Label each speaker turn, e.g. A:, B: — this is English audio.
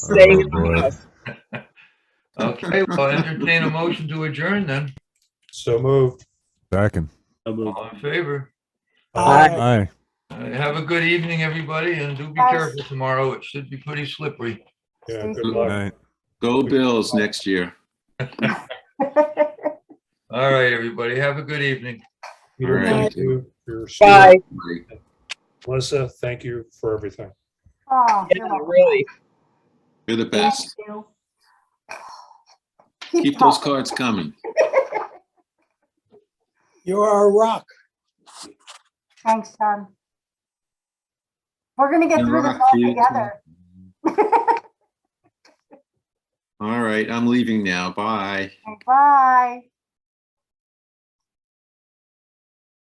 A: Staying in
B: boy.
A: the house.
C: Okay, well, entertain a motion to adjourn then.
D: So moved.
B: Second.
C: All in favor?
A: Aye.
B: Aye.
C: Uh, Have a good evening, everybody, and do be
A: Yes.
C: careful tomorrow. It should be pretty slippery.
D: Yeah, good
B: Good
D: luck.
B: night.
E: Go Bills next year. Oh,
C: All right, everybody, have a good evening.
D: Peter,
E: All right.
D: thank you for your
A: Bye.
E: Mike.
D: Melissa, thank you for everything.
F: Oh,
A: Yeah,
F: you're welcome.
A: really.
E: You're the
F: Thank
E: best.
F: you.
E: Keep those
F: talking.
E: cards coming.
G: You are a rock.
F: Thanks, Tom. We're gonna get
E: You're
F: through
E: rock,
F: this all
E: you
F: together.
E: All right, I'm leaving now. Bye.
F: Bye.